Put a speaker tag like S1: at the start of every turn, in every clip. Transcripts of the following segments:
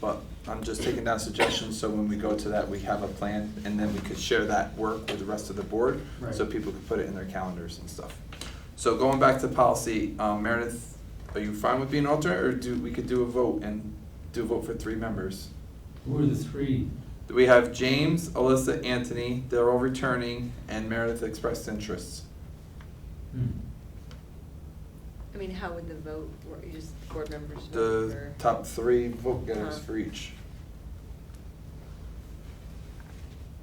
S1: But I'm just taking down suggestions, so when we go to that, we have a plan, and then we could share that work with the rest of the board, so
S2: Right.
S1: people could put it in their calendars and stuff. So going back to policy, um, Meredith, are you fine with being alternate, or do, we could do a vote and do a vote for three members?
S3: Who are the three?
S1: We have James, Alyssa, Anthony, they're all returning, and Meredith expressed interest.
S3: Hmm.
S4: I mean, how would the vote, work? you just board members vote
S1: The
S4: for?
S1: top three vote getters
S4: Uh-huh.
S1: for each.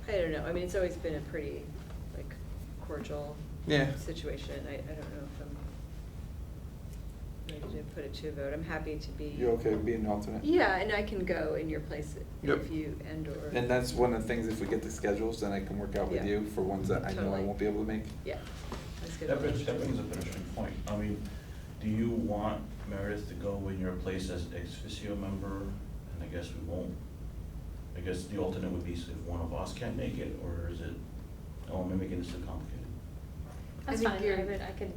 S4: I don't know, I mean, it's always been a pretty, like, cordial
S1: Yeah.
S4: situation, I, I don't know if I'm ready to put it to a vote, I'm happy to be.
S1: You okay with being an alternate?
S4: Yeah, and I can go in your place
S1: Yep.
S4: if you, and or.
S1: And that's one of the things, if we get the schedules, then I can work out with
S4: Yeah.
S1: you for ones that I know I
S4: Totally.
S1: won't be able to make.
S4: Yeah, that's good.
S5: That brings, that brings up an interesting point. I mean, do you want Meredith to go in your place as ex officio member? And I guess we won't. I guess the alternate would be if one of us can't make it, or is it, oh, am I making this too complicated?
S4: I
S6: That's
S4: think
S6: fine, I
S4: you're-
S6: would, I could,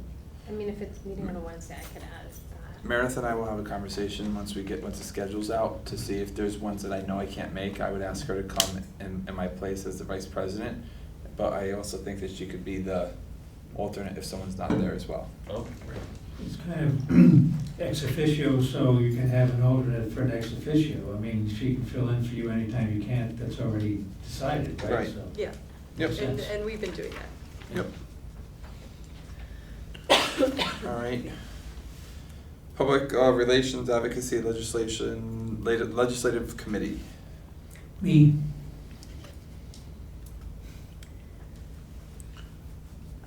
S6: I mean, if it's meeting on a Wednesday, I could add that.
S1: Meredith and I will have a conversation once we get, once the schedule's out, to see if there's ones that I know I can't make. I would ask her to come in, in my place as the vice president, but I also think that she could be the alternate if someone's not there as well.
S5: Okay, great.
S3: It's kind of ex officio, so you can have an alternate for an ex officio. I mean, she can fill in for you anytime you can't, that's already decided, right?
S1: Right.
S3: So-
S4: Yeah,
S1: Yep.
S4: and, and we've been doing that.
S1: Yep. All right. Public uh, Relations Advocacy Legislation, lat- Legislative Committee.
S3: Me,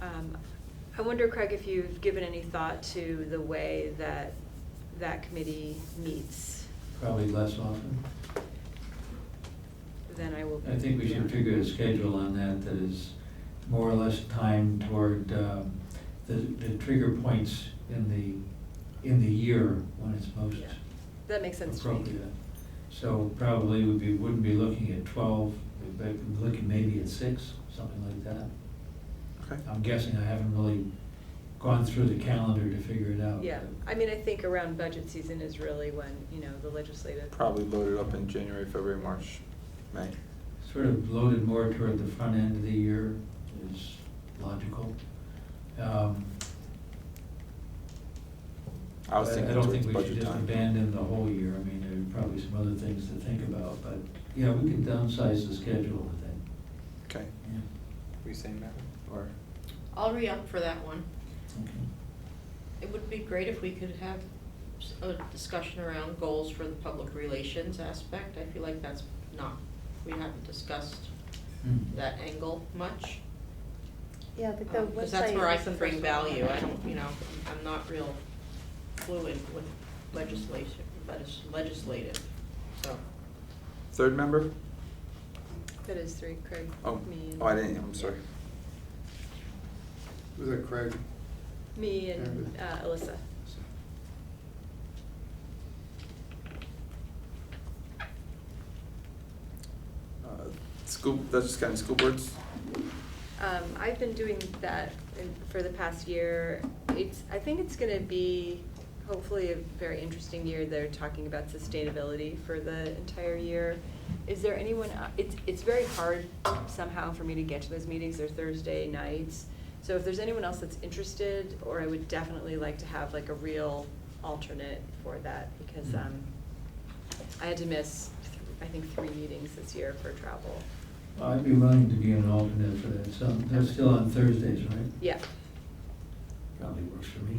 S4: Um, I wonder, Craig, if you've given any thought to the way that that committee meets,
S3: probably less often.
S4: then I will.
S3: I think we should figure a schedule on that that is more or less timed toward um, the, the trigger points in the, in the year when it's most
S4: Yeah. That makes sense to me.
S3: appropriate. So probably would be, wouldn't be looking at twelve, we'd be looking maybe at six, something like that.
S1: Okay.
S3: I'm guessing I haven't really gone through the calendar to figure it out.
S4: Yeah, I mean, I think around budget season is really when, you know, the legislative.
S1: Probably loaded up in January, February, March, May.
S3: Sort of loaded more toward the front end of the year is logical. Um,
S1: I was thinking towards
S3: I don't think we should
S1: budget
S3: just
S1: time.
S3: abandon the whole year, I mean, there are probably some other things to think about, but, yeah, we could downsize the schedule, I think.
S1: Okay, we saying that, or?
S7: I'll re-up for that one.
S3: Okay.
S7: It would be great if we could have s- a discussion around goals for the public relations aspect. I feel like that's not, we haven't discussed
S3: Hmm.
S7: that angle much.
S8: Yeah, but
S6: Oh,
S8: the website.
S7: Because that's where I
S8: is the
S7: can bring
S8: first one.
S7: value. I don't, you know, I'm not real fluid with legislation, legis- legislative, so.
S1: Third member?
S4: That is three, Craig,
S1: Oh,
S4: me and.
S1: oh, I didn't, I'm sorry.
S2: Was that Craig?
S4: Me and
S2: Meredith.
S4: uh, Alyssa.
S1: Uh, School, that's just kind of school boards?
S4: Um, I've been doing that in- for the past year. It's, I think it's gonna be hopefully a very interesting year. They're talking about sustainability for the entire year. Is there anyone, uh, it's, it's very hard somehow for me to get to those meetings. They're Thursday nights. So if there's anyone else that's interested, or I would definitely like to have like a real alternate for that because, um, I had to miss, th- I think, three meetings this year for travel.
S3: I'd be willing to be an alternate for that, so, that's still on Thursdays, right?
S4: Yeah,
S3: Probably works for me.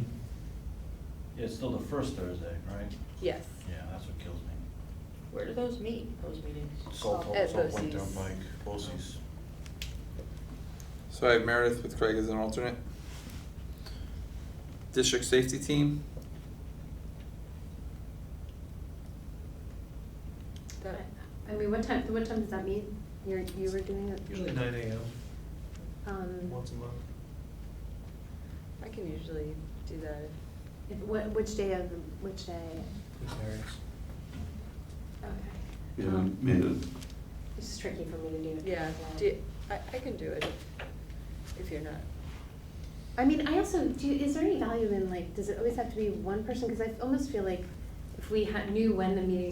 S5: Yeah, it's still the first Thursday, right?
S4: yes.
S5: Yeah, that's what kills me.
S7: Where do those meet, those meetings?
S5: Salt,
S4: At
S5: Salt Lake
S4: BOCES.
S5: Turnpike, BOCES.
S1: So I have Meredith with Craig as an alternate. District Safety Team,
S4: That-
S6: I mean, what time, what time does that meet? You're, you were doing it?
S9: Usually nine AM,
S6: Um,
S9: once a month.
S4: I can usually do that.
S6: if, what, which day of, the which day? Okay.
S10: Yeah,
S6: Um,
S10: maybe
S6: It's just tricky for me to do it. Um,
S4: Yeah,
S6: that
S4: do,
S6: way.
S4: I, I can do it if you're not.
S6: I mean, I also, do, you- is there any value in like, does it always have to be one person? Cause I almost feel like if we had, knew when the meetings